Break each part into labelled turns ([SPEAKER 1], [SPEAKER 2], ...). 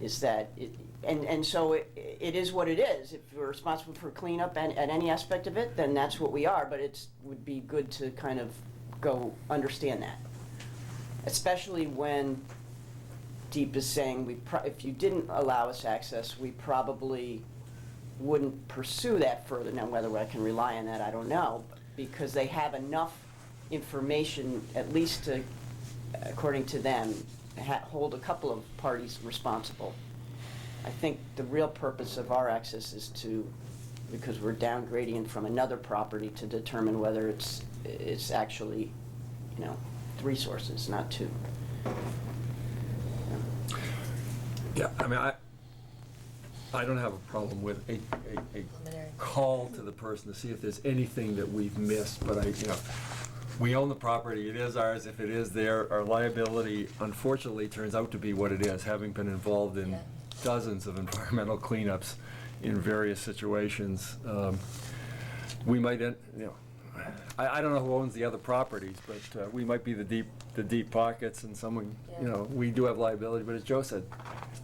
[SPEAKER 1] is that, it- and, and so it, it is what it is. If we're responsible for cleanup and, at any aspect of it, then that's what we are, but it's, would be good to kind of go understand that. Especially when Deep is saying, we, pro- if you didn't allow us access, we probably wouldn't pursue that further. Now, whether I can rely on that, I don't know, because they have enough information, at least to, according to them, ha- hold a couple of parties responsible. I think the real purpose of our access is to, because we're downgrading from another property to determine whether it's, it's actually, you know, three sources, not two.
[SPEAKER 2] Yeah, I mean, I, I don't have a problem with a, a, a
[SPEAKER 3] Preliminary.
[SPEAKER 2] call to the person to see if there's anything that we've missed, but I, you know, we own the property, it is ours, if it is there, our liability unfortunately turns out to be what it is, having been involved in
[SPEAKER 3] Yeah.
[SPEAKER 2] dozens of environmental cleanups in various situations. Um, We might, en- you know, I, I don't know who owns the other properties, but uh, we might be the deep, the deep pockets and someone, you
[SPEAKER 3] Yeah.
[SPEAKER 2] know, we do have liability, but as Joe said,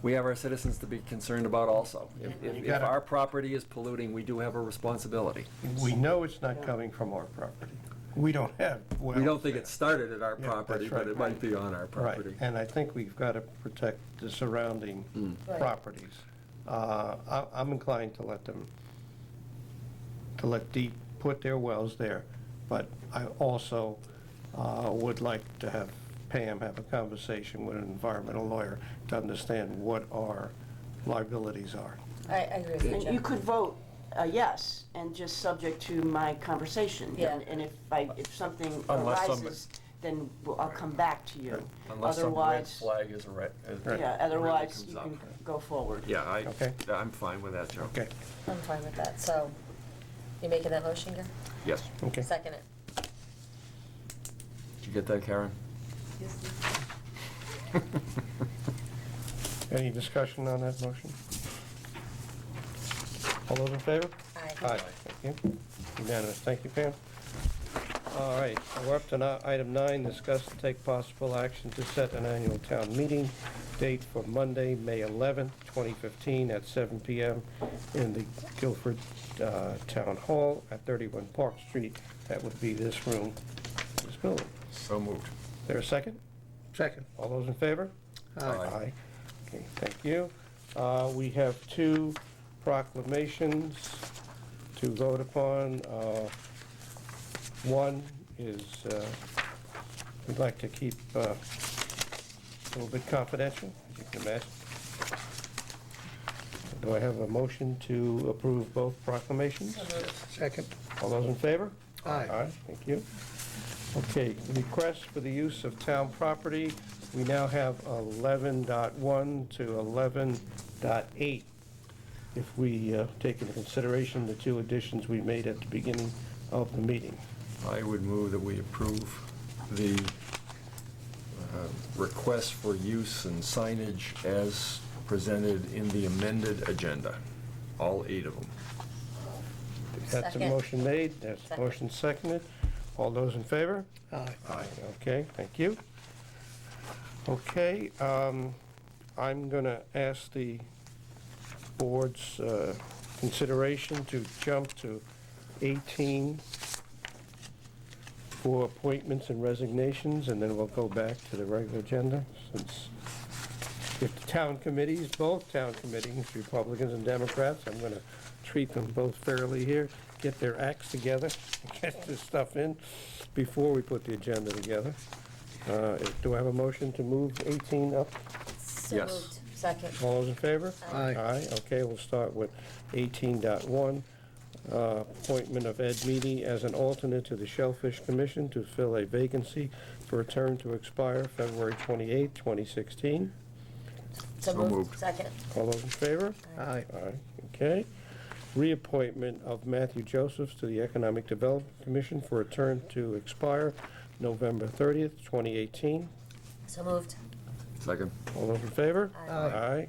[SPEAKER 2] we have our citizens to be concerned about also. If,
[SPEAKER 3] Mhm.
[SPEAKER 2] if-
[SPEAKER 3] You
[SPEAKER 2] if
[SPEAKER 4] gotta-
[SPEAKER 2] our property is polluting, we do have a responsibility.
[SPEAKER 4] We know it's not coming from our property. We don't have wells.
[SPEAKER 2] We don't think
[SPEAKER 4] there.
[SPEAKER 2] it started at our
[SPEAKER 4] Yeah,
[SPEAKER 2] property,
[SPEAKER 4] that's
[SPEAKER 2] but it
[SPEAKER 4] right.
[SPEAKER 2] might be on our
[SPEAKER 4] Right,
[SPEAKER 2] property. Hmm.
[SPEAKER 4] and I think we've got to protect the surrounding
[SPEAKER 3] Right.
[SPEAKER 4] properties. Uh, I- I'm inclined to let them, to let deep put their wells there, but I also uh, would like to have Pam have a conversation with an environmental lawyer to understand what our liabilities are.
[SPEAKER 3] I, I agree with you,
[SPEAKER 1] And you
[SPEAKER 3] John.
[SPEAKER 1] could vote uh, yes, and just subject to my conversation.
[SPEAKER 3] Yeah.
[SPEAKER 1] And- And if I, if something
[SPEAKER 2] Unless somebody-
[SPEAKER 1] arises, then we'll- I'll come back to you.
[SPEAKER 2] Unless some red
[SPEAKER 1] Otherwise,
[SPEAKER 2] flag is a red. is-
[SPEAKER 4] Right.
[SPEAKER 1] yeah, otherwise
[SPEAKER 2] really
[SPEAKER 1] you can
[SPEAKER 2] comes up.
[SPEAKER 1] go forward.
[SPEAKER 2] Yeah, I,
[SPEAKER 4] Okay.
[SPEAKER 2] I'm fine with that, Joe.
[SPEAKER 4] Okay,
[SPEAKER 3] I'm fine with that, so, you making that motion, Gary?
[SPEAKER 2] Yes.
[SPEAKER 4] okay.
[SPEAKER 3] Second it.
[SPEAKER 2] Did you get that, Karen?
[SPEAKER 4] Any discussion on that motion? All those in favor?
[SPEAKER 3] Aye.
[SPEAKER 4] Aye, thank you. Unanimous, thank you, Pam. All right, we're up to now item nine, discuss and take possible action to set an annual town meeting date for Monday, May 11th, 2015, at 7 PM in the Guilford uh, Town Hall at 31 Park Street. That would be this room, this building.
[SPEAKER 2] So moved.
[SPEAKER 4] Is There a second? Second. All those in favor?
[SPEAKER 2] Aye. Aye.
[SPEAKER 4] Okay, thank you. Uh, We have two proclamations to vote upon. Uh, One is, uh, we'd like to keep uh, a little bit confidential, as you can imagine. Do I have a motion to approve both proclamations?
[SPEAKER 5] Second.
[SPEAKER 4] All those in favor?
[SPEAKER 5] Aye.
[SPEAKER 4] thank you. Okay, request for the use of town property. We now have 11.1 to 11.8. If we uh, take into consideration the two additions we made at the beginning of the meeting.
[SPEAKER 2] I would move that we approve the uh, request for use and signage as presented in the amended agenda, all eight of them.
[SPEAKER 4] That's a
[SPEAKER 3] Second.
[SPEAKER 4] motion made, that's a
[SPEAKER 3] Second.
[SPEAKER 4] motion seconded. All those in favor?
[SPEAKER 5] Aye.
[SPEAKER 2] Aye.
[SPEAKER 4] Okay, thank you. Okay, um, I'm going to ask the board's uh, consideration to jump to 18 for appointments and resignations, and then we'll go back to the regular agenda, since if the town committees, both town committees, Republicans and Democrats, I'm going to treat them both fairly here, get their acts together, get this stuff in before we put the agenda together. Uh, if- Do I have a motion to move 18 up?
[SPEAKER 3] So
[SPEAKER 2] Yes.
[SPEAKER 3] moved. Second.
[SPEAKER 4] All those in favor?
[SPEAKER 5] Aye.
[SPEAKER 4] Aye, okay, we'll start with 18.1, uh, appointment of Ed Meady as an alternate to the Shellfish Commission to fill a vacancy for a term to expire February 28, 2016.
[SPEAKER 3] So
[SPEAKER 2] So
[SPEAKER 3] moved.
[SPEAKER 2] moved.
[SPEAKER 3] Second.
[SPEAKER 4] All those in favor?
[SPEAKER 5] Aye.
[SPEAKER 4] Aye, okay. Reappointment of Matthew Josephs to the Economic Development Commission for a term to expire November 30th, 2018.
[SPEAKER 3] So moved.
[SPEAKER 2] Second.
[SPEAKER 4] All those in favor?
[SPEAKER 3] Aye.
[SPEAKER 4] Aye.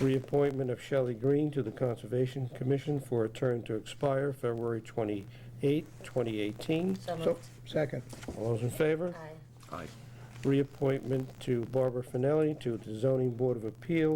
[SPEAKER 4] Reappointment of Shelley Green to the Conservation Commission for a term to expire February 28, 2018.
[SPEAKER 3] So
[SPEAKER 5] So,
[SPEAKER 3] moved.
[SPEAKER 5] second.
[SPEAKER 4] All those in favor?
[SPEAKER 3] Aye.
[SPEAKER 2] Aye.
[SPEAKER 4] Reappointment to Barbara Finelli to the Zoning Board of Appeal